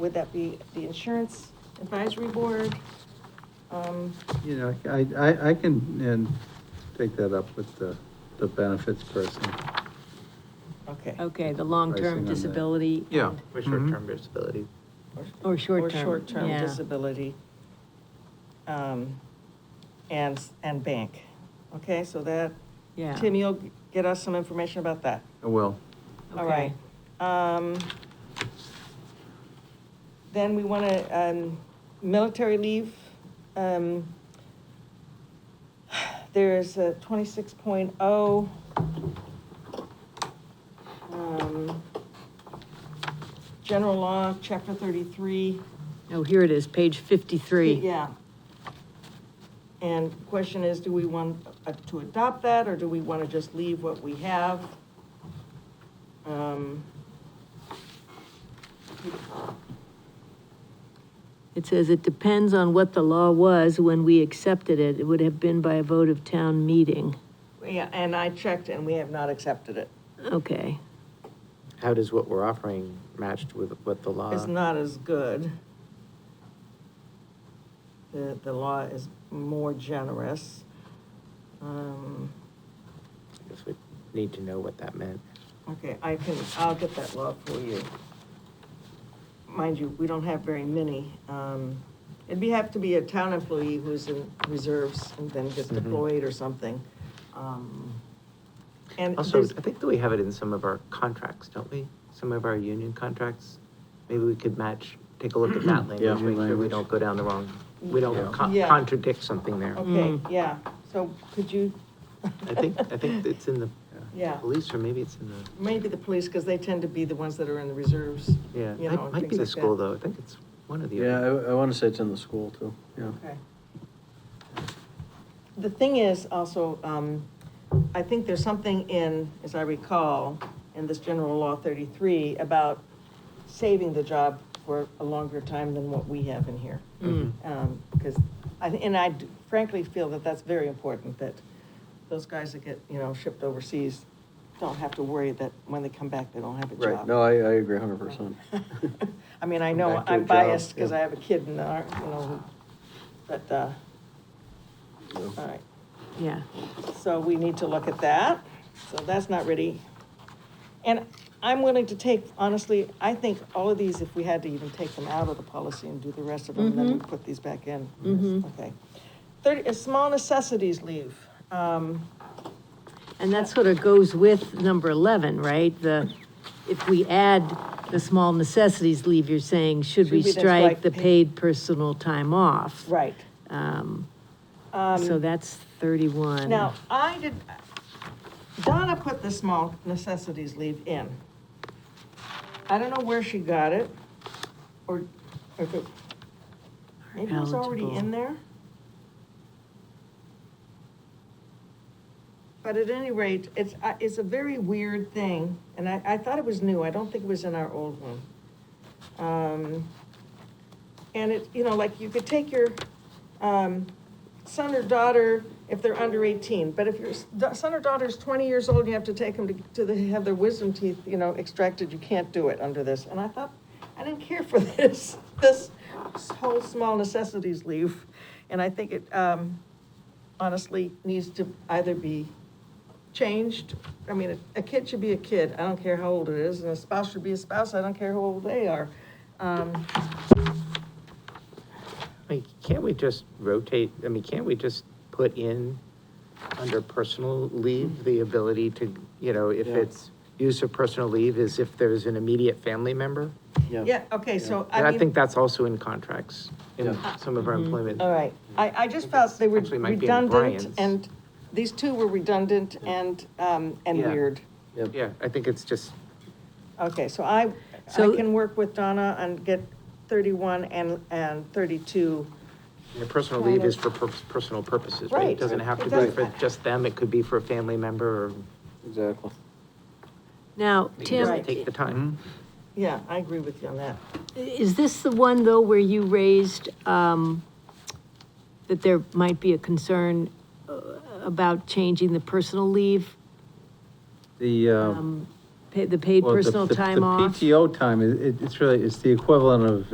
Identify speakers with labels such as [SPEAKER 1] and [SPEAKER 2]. [SPEAKER 1] Would that be the insurance advisory board? Um,
[SPEAKER 2] You know, I, I, I can, and take that up with the, the benefits person.
[SPEAKER 1] Okay.
[SPEAKER 3] Okay, the
[SPEAKER 2] Pricing on
[SPEAKER 3] long-term
[SPEAKER 2] that.
[SPEAKER 3] disability.
[SPEAKER 4] Yeah.
[SPEAKER 3] and-
[SPEAKER 5] For
[SPEAKER 2] Mhm.
[SPEAKER 5] short-term disability.
[SPEAKER 3] Or short-term,
[SPEAKER 1] Or short-term
[SPEAKER 3] yeah.
[SPEAKER 1] disability. Um, And, and bank. Okay, so that,
[SPEAKER 3] Yeah.
[SPEAKER 1] Tim, you'll get us some information about that.
[SPEAKER 2] I will.
[SPEAKER 1] All right.
[SPEAKER 3] Okay.
[SPEAKER 1] Um, Then we want to, um, military leave. um, There's a twenty-six oh. Um, General law, chapter thirty-three.
[SPEAKER 3] Oh, here it is, page 53.
[SPEAKER 1] Yeah. And question is, do we want uh, to adopt that, or do we want to just leave what we have? Um,
[SPEAKER 3] It says, "It depends on what the law was when we accepted it. It would have been by a vote of town meeting."
[SPEAKER 1] Yeah, and I checked, and we have not accepted it.
[SPEAKER 3] Okay,
[SPEAKER 5] How does what we're offering matched with what the law?
[SPEAKER 1] It's not as good. The, the law is more generous. Um,
[SPEAKER 5] I guess we need to know what that meant.
[SPEAKER 1] Okay, I can, I'll get that law for you. Mind you, we don't have very many. Um, It'd be, have to be a town employee who's in reserves and then gets
[SPEAKER 5] Mhm.
[SPEAKER 1] deployed or something. Um, And
[SPEAKER 5] Also,
[SPEAKER 1] there's,
[SPEAKER 5] I think that we have it in some of our contracts, don't we? Some of our union contracts. Maybe we could match, take a look at that
[SPEAKER 2] Yeah.
[SPEAKER 5] language, make sure we don't go down the wrong, we don't con-
[SPEAKER 1] Yeah.
[SPEAKER 5] contradict something there.
[SPEAKER 1] okay, yeah, so could you,
[SPEAKER 5] mm. I think, I think it's in the
[SPEAKER 1] yeah,
[SPEAKER 5] police, or maybe it's in the,
[SPEAKER 1] maybe the police, because they tend to be the ones that are in the reserves.
[SPEAKER 5] yeah,
[SPEAKER 1] You know,
[SPEAKER 5] might, might
[SPEAKER 1] things
[SPEAKER 5] be the
[SPEAKER 1] like
[SPEAKER 5] school,
[SPEAKER 1] that.
[SPEAKER 5] though. I think it's one of the
[SPEAKER 6] Yeah,
[SPEAKER 5] other.
[SPEAKER 6] I, I wanna say it's in the school too, yeah.
[SPEAKER 1] Okay. The thing is also, um, I think there's something in, as I recall, in this general law thirty-three about saving the job for a longer time than what we have in here.
[SPEAKER 3] Mm.
[SPEAKER 6] Mm-hmm.
[SPEAKER 1] Um, cause I, thi- and I d- frankly feel that that's very important, that those guys that get, you know, shipped overseas don't have to worry that when they come back, they don't have a job.
[SPEAKER 6] Right, no, I, I agree hundred percent.
[SPEAKER 1] I mean, I
[SPEAKER 5] Come
[SPEAKER 1] know
[SPEAKER 5] back to
[SPEAKER 1] I'm
[SPEAKER 5] a job,
[SPEAKER 1] biased because
[SPEAKER 5] yeah.
[SPEAKER 1] I have a kid in the, ar- you know, but, uh, all right.
[SPEAKER 3] yeah.
[SPEAKER 1] So we need to look at that. So that's not ready. And I'm willing to take, honestly, I think all of these, if we had to even take them out of the policy and do the rest of them, then we
[SPEAKER 3] Mhm.
[SPEAKER 1] put these back in.
[SPEAKER 3] Mhm.
[SPEAKER 1] Okay. Thirty, uh, small necessities leave. Um,
[SPEAKER 3] And that sort of goes with number 11, right? The, if we add the small necessities leave, you're saying, should
[SPEAKER 1] Should
[SPEAKER 3] we
[SPEAKER 1] we then
[SPEAKER 3] strike
[SPEAKER 1] strike
[SPEAKER 3] the
[SPEAKER 1] pa-
[SPEAKER 3] paid personal time off?
[SPEAKER 1] right.
[SPEAKER 3] Um,
[SPEAKER 1] Um,
[SPEAKER 3] So that's 31.
[SPEAKER 1] Now, I did, Donna put the small necessities leave in. I don't know where she got it, or, or if it, maybe it was already in
[SPEAKER 3] Eligible.
[SPEAKER 1] there? But at any rate, it's, I- it's a very weird thing, and I, I thought it was new, I don't think it was in our old one. Um, And it, you know, like, you could take your, um, son or daughter if they're under 18. But if your s- da- son or daughter's 20 years old, you have to take them to, to the, have their wisdom teeth, you know, extracted. You can't do it under this. And I thought, I didn't care for this, this whole small necessities leave. And I think it um, honestly needs to either be changed. I mean, a- a kid should be a kid. I don't care how old it is. And a spouse should be a spouse. I don't care how old they are. Um,
[SPEAKER 5] I mean, can't we just rotate, I mean, can't we just put in under personal leave, the ability to, you know, if
[SPEAKER 6] Yeah.
[SPEAKER 5] it's use of personal leave is if there's an immediate family member?
[SPEAKER 1] Yeah, okay, so I
[SPEAKER 5] And
[SPEAKER 1] mean.
[SPEAKER 5] I think that's also in contracts, in
[SPEAKER 6] Yeah.
[SPEAKER 5] some of our employment.
[SPEAKER 1] All right, I, I just felt they were
[SPEAKER 5] Actually, it might be in
[SPEAKER 1] redundant
[SPEAKER 5] Brian's.
[SPEAKER 1] and, these two were redundant and, um, and
[SPEAKER 5] Yeah.
[SPEAKER 1] weird.
[SPEAKER 5] Yeah, I think it's just,
[SPEAKER 1] Okay, so I, I
[SPEAKER 3] So-
[SPEAKER 1] can work with Donna and get thirty-one and, and thirty-two.
[SPEAKER 5] you know, personal
[SPEAKER 1] Kind
[SPEAKER 5] leave is
[SPEAKER 1] of-
[SPEAKER 5] for pur- personal purposes, right?
[SPEAKER 1] Right.
[SPEAKER 5] It doesn't have
[SPEAKER 1] It
[SPEAKER 5] to be for
[SPEAKER 1] doesn't-
[SPEAKER 5] just them, it could be for a family member, or
[SPEAKER 6] Exactly.
[SPEAKER 3] Now,
[SPEAKER 5] you can
[SPEAKER 3] Tim,
[SPEAKER 5] just take the time. Mm-hmm.
[SPEAKER 1] Yeah, I agree with you on that.
[SPEAKER 3] Is this the one, though, where you raised um, that there might be a concern uh, about changing the personal leave,
[SPEAKER 2] The, uh.
[SPEAKER 3] um, pa- the paid
[SPEAKER 2] well, the-
[SPEAKER 3] personal
[SPEAKER 2] the-
[SPEAKER 3] time off?
[SPEAKER 2] The PTO time, it, it's really, it's the equivalent of